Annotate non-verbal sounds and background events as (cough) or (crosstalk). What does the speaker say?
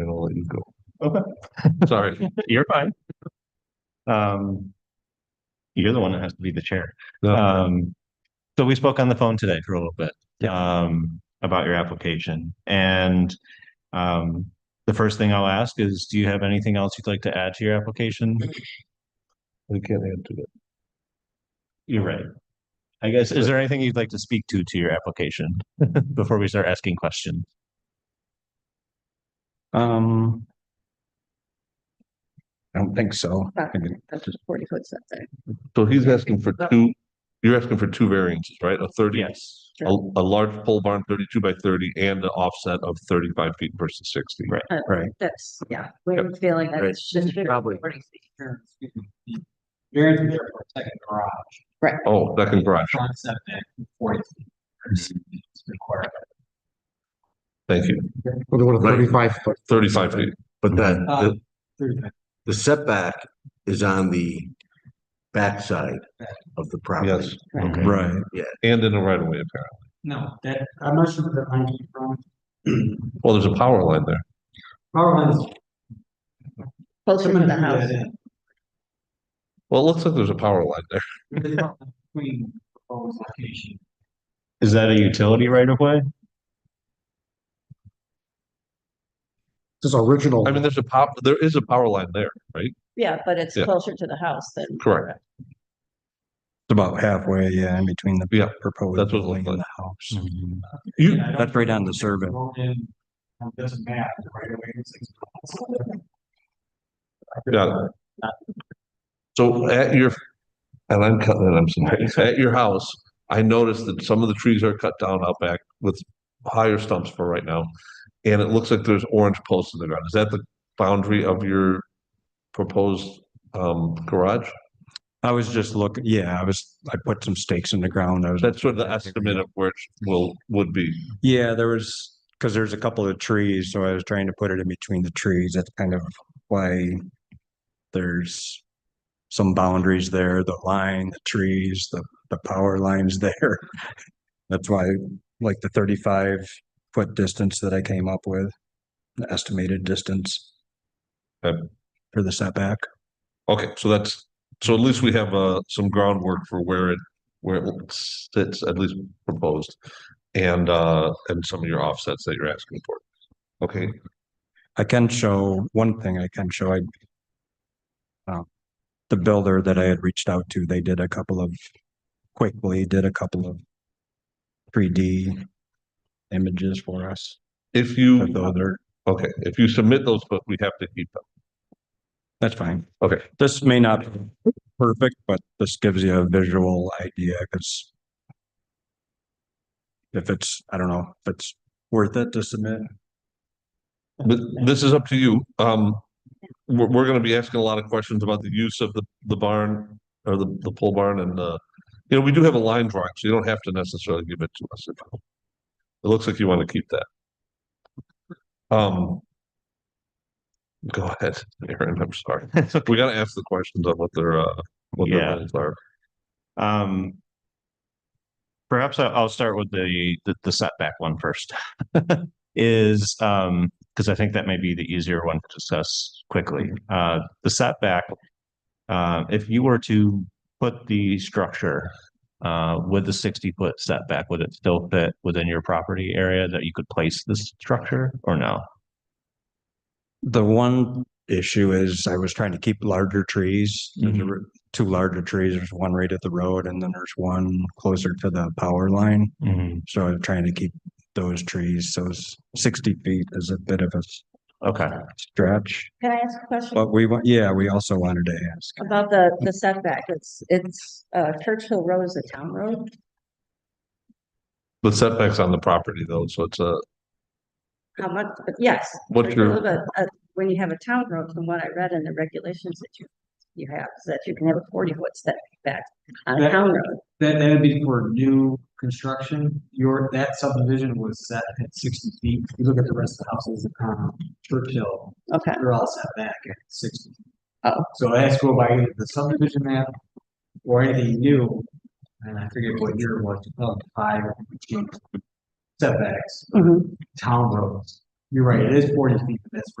didn't go. (laughs) Okay, Sorry. you're fine. Um, you're the one that has to be the chair. No. Um, so we spoke on the phone today for a little bit. Yeah. Um, about your application and, um, the first thing I'll ask is, do you have anything else you'd like to add to your application? We can't add to that. You're right. I guess, is there anything you'd like to speak to, to your application (laughs) before we start asking questions? Um. I don't think so. I mean, That's a forty foot setback. So he's asking for two, you're asking for two variances, right? A thirty, a, Yes. a large pole barn thirty-two by thirty and an offset of thirty-five feet versus sixty. Right. Right, That's, yeah, we're feeling that it's just. Probably. Variance is there for a second garage, Oh, second garage. front setback forty feet. It's required. Thank you. Well, they want a Right. thirty-five foot. Thirty-five feet. But that, Uh, the, the setback is on the backside of the property. Yes. Correct. right. And in the right of way apparently. No, that, I'm not sure where that line came from. (clears throat) Well, there's a power line there. Power lines. Closer to the house. Well, it looks like there's a power line there. Between proposed location. Is that a utility right of way? This is original. I mean, there's a pop, there is a power line there, right? Yeah, but it's Yeah. closer to the house than. Correct. It's about halfway, yeah, in between the. Yeah, Proposed. that's what it building looked and the House. Mm-hmm. You, That's right on the survey. It doesn't matter, right away. it's six- got it. So at your, and I'm cutting it, I'm sorry, at your house, I noticed that some of the trees are cut down out back with higher stumps for right now. And it looks like there's orange posts in the ground. Is that the boundary of your proposed um garage? I was just looking, yeah, I was, I put some stakes in the ground. I was, That's sort of the estimate of where it will, would be. yeah, there was, because there's a couple of trees, so I was trying to put it in between the trees. That's kind of why there's some boundaries there, the line, the trees, the, the power lines (laughs) there. That's why, like the thirty-five foot distance that I came up with, the estimated distance Okay. for the setback. Okay, so that's, so at least we have uh some groundwork for where it, where it sits, at least proposed. And uh, and some of your offsets that you're asking for. Okay, I can show, one thing I can show, I uh, the builder that I had reached out to, they did a couple of, quickly did a couple of three D images for us, if you, though they're, okay, if you submit those, but we have to keep them. that's fine. Okay. This may not be perfect, but this gives you a visual idea, because if it's, I don't know, if it's worth it to submit. But this is up to you. Um, we're, we're gonna be asking a lot of questions about the use of the, the barn or the, the pole barn and, uh, you know, we do have a line drawing, so you don't have to necessarily give it to us. if- It looks like you want to keep that. Um, go ahead, Aaron, I'm sorry. We gotta ask the questions on what their, uh, what their Yeah. plans are. Um. Perhaps I- I'll start with the, the- the setback one first. (laughs) Is, um, because I think that may be the easier one to discuss quickly. Uh, the setback. Uh, if you were to put the structure, uh, with the sixty foot setback, would it still fit within your property area that you could place this structure or no? The one issue is I was trying to keep larger trees. There's a r- Two larger trees. There's one right at the road and then there's one closer to the power line. So I'm trying to keep those trees. So s- sixty feet is a bit of a s- Okay, stretch. Can I ask a question But we, wa- yeah, we also wanted to ask. about the, the setback? It's, it's, uh, Churchill Road is a town road. The setbacks on the property though, so it's uh, a, How much, but yes. what's your, But, uh, when you have a town road, from what I read in the regulations that you, you have, is that you can have a forty foot setback on a That- town road. That, that'd be for new construction, your, that subdivision was set at sixty feet, If you look at the rest of the houses, um, Churchill, Okay, they're all set back at sixty. Oh. So I asked to go by either the subdivision map or anything new, and I forget what year it was, two thousand five, setbacks, mhm. town roads. You're right, it is forty feet, but that's